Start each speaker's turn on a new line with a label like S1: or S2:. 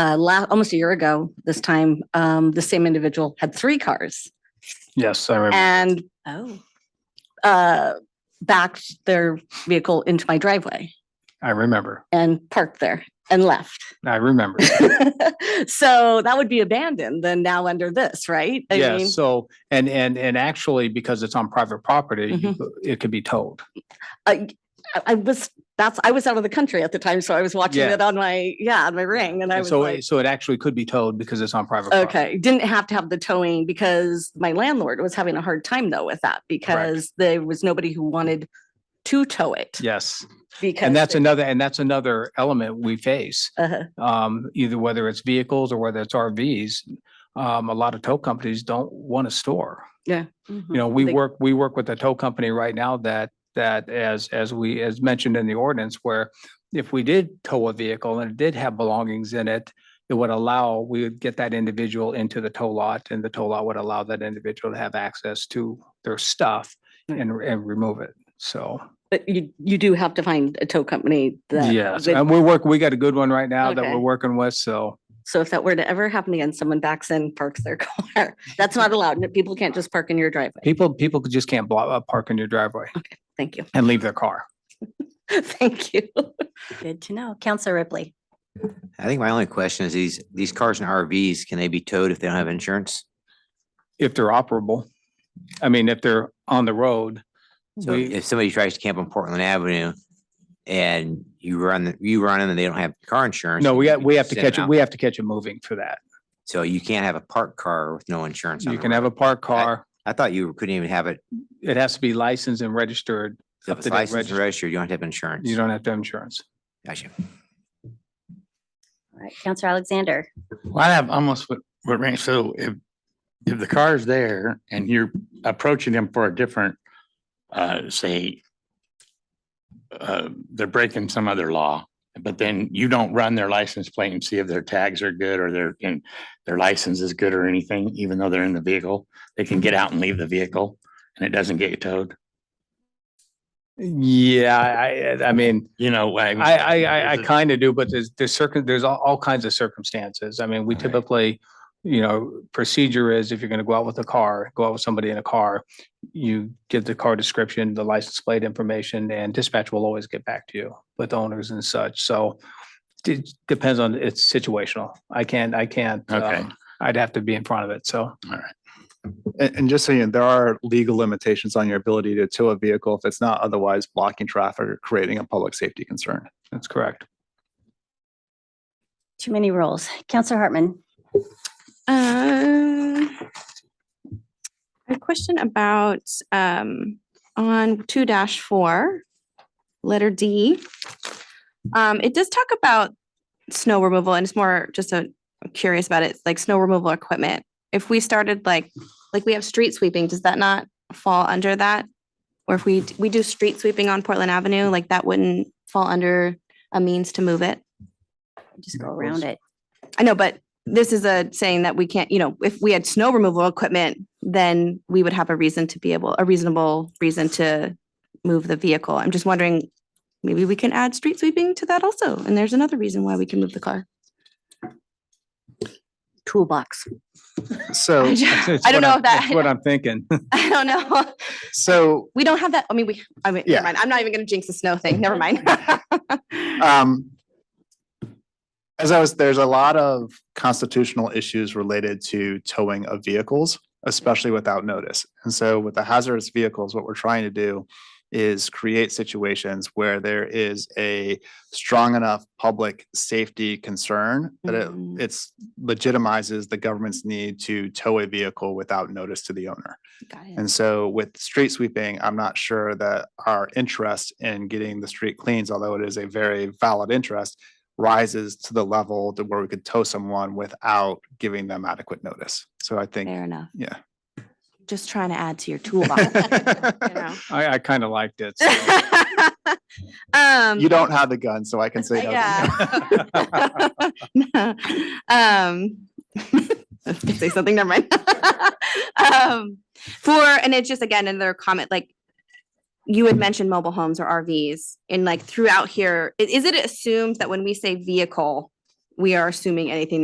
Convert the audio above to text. S1: uh, la- almost a year ago, this time, um, the same individual had three cars
S2: Yes, I remember.
S1: and
S3: Oh,
S1: uh, backed their vehicle into my driveway
S2: I remember.
S1: and parked there and left.
S2: I remember.
S1: so that would be abandoned then now under this, right? I
S2: Yeah,
S1: mean,
S2: so, and, and, and actually, because it's on private property,
S1: Mm-hmm.
S2: you- it could be towed.
S1: I, I- I was, that's, I was out of the country at the time, so I was watching
S2: Yeah.
S1: it on my, yeah, on my ring and I
S2: And
S1: was
S2: so,
S1: like.
S2: it- so it actually could be towed because it's on private. property.
S1: Okay, didn't have to have the towing because my landlord was having a hard time though with that because there was nobody who wanted to tow it.
S2: Yes,
S1: Because.
S2: and that's
S1: it-
S2: another, and that's another element we face,
S1: uh-huh.
S2: um, either whether it's vehicles or whether it's RVs. Um, a lot of tow companies don't want to store.
S3: mhm.
S2: You know, we
S1: They-
S2: work, we work with a tow company right now that, that as, as we, as mentioned in the ordinance, where if we did tow a vehicle and it did have belongings in it, it would allow, we would get that individual into the tow lot and the tow lot would allow that individual to have access to their stuff
S1: Right.
S2: and, and remove it. So,
S1: But you, you do have to find a tow company that.
S2: yes, um,
S1: would-
S2: and we're working, we got a good one right now that
S1: Okay.
S2: we're working with. So,
S1: So if that were to ever happen again, someone backs in, parks their car, that's not allowed. and People can't just park in your driveway.
S2: people, people just can't block, uh, park in your driveway
S1: Thank you.
S2: and leave their car.
S1: Thank you.
S3: Good to know. Counselor Ripley.
S4: I think my only question is these, these cars and RVs, can they be towed if they don't have insurance?
S2: If they're operable, I mean, if they're on the road,
S4: So
S2: We-
S4: if somebody tries to camp on Portland Avenue and you run, the- you run them and they don't have car insurance.
S2: No, we
S4: you
S2: got,
S4: can
S2: we have to
S4: send them
S2: catch it.
S4: out.
S2: We have to catch it moving for that.
S4: So you can't have a parked car with no insurance on
S2: You
S4: it.
S2: can have a parked
S4: I-
S2: car.
S4: I thought you couldn't even have it.
S2: It has to be licensed and registered.
S4: If
S2: Up
S4: it's
S2: to date
S4: licensed and
S2: regist-
S4: registered, you don't have to have insurance.
S2: You don't have to have insurance.
S4: Gotcha.
S3: All right, Counselor Alexander.
S5: Well, I have almost what, what Randy, so if, if the car's there and you're approaching them for a different, uh, say, uh, they're breaking some other law, but then you don't run their license plate and see if their tags are good or their, and their license is good or anything, even though they're in the vehicle, they can get out and leave the vehicle and it doesn't get towed,
S2: Yeah, I, I- I mean,
S5: you know?
S2: I, I, I, I
S5: there's a-
S2: kind of do, but there's, there's circum, there's all, all kinds of circumstances. I mean, we
S5: Right.
S2: typically, you know, procedure is if you're going to go out with a car, go out with somebody in a car, you give the car description, the license plate information, and dispatch will always get back to you with owners and such. So it depends on, it's situational. I can't, I can't.
S5: Okay.
S2: um, I'd have to be in front of it. So.
S6: And, and just so you know, there are legal limitations on your ability to tow a vehicle if it's not otherwise blocking traffic or creating a public safety concern.
S2: That's correct.
S3: Too many roles. Counselor Hartman.
S7: Um, A question about, um, on two dash four, letter D. Um, it does talk about snow removal and it's more just a I'm curious about it, like snow removal equipment. If we started like, like we have street sweeping, does that not fall under that? Or if we, d- we do street sweeping on Portland Avenue, like that wouldn't fall under a means to move it?
S3: Just go around it.
S7: I know, but this is a saying that we can't, you know, if we had snow removal equipment, then we would have a reason to be able, a reasonable reason to move the vehicle. I'm just wondering, maybe we can add street sweeping to that also. And there's another reason why we can move the car.
S1: Toolbox.
S6: So,
S7: I
S2: That's-
S7: ju-
S2: that's
S7: I
S2: what
S7: don't know
S2: I'm-
S7: if
S2: that's What
S7: that,
S2: I'm thinking.
S7: I don't know.
S6: so
S7: We don't have that. I mean, we, I mean,
S6: Yeah.
S7: never mind. I'm not even going to jinx the snow thing. Never mind.
S6: um, as I was, there's a lot of constitutional issues related to towing of vehicles, especially without notice. And so with the hazardous vehicles, what we're trying to do is create situations where there is a strong enough public safety concern that it,
S7: Mm.
S6: it's legitimizes the government's need to tow a vehicle without notice to the owner.
S7: Got it.
S6: And so with street sweeping, I'm not sure that our interest in getting the street cleans, although it is a very valid interest, rises to the level to where we could tow someone without giving them adequate notice. So I think,
S7: Fair enough.
S6: yeah.
S7: Just trying to add to your toolbox. you know?
S2: I, I kind of liked it. so.
S7: Um.
S6: You don't have the gun, so I can say no.
S7: Uh, Yeah. um, I was gonna say something, never mind. um, for, and it's just again, another comment, like you had mentioned mobile homes or RVs and like throughout here, i- is it assumed that when we say vehicle, we are assuming anything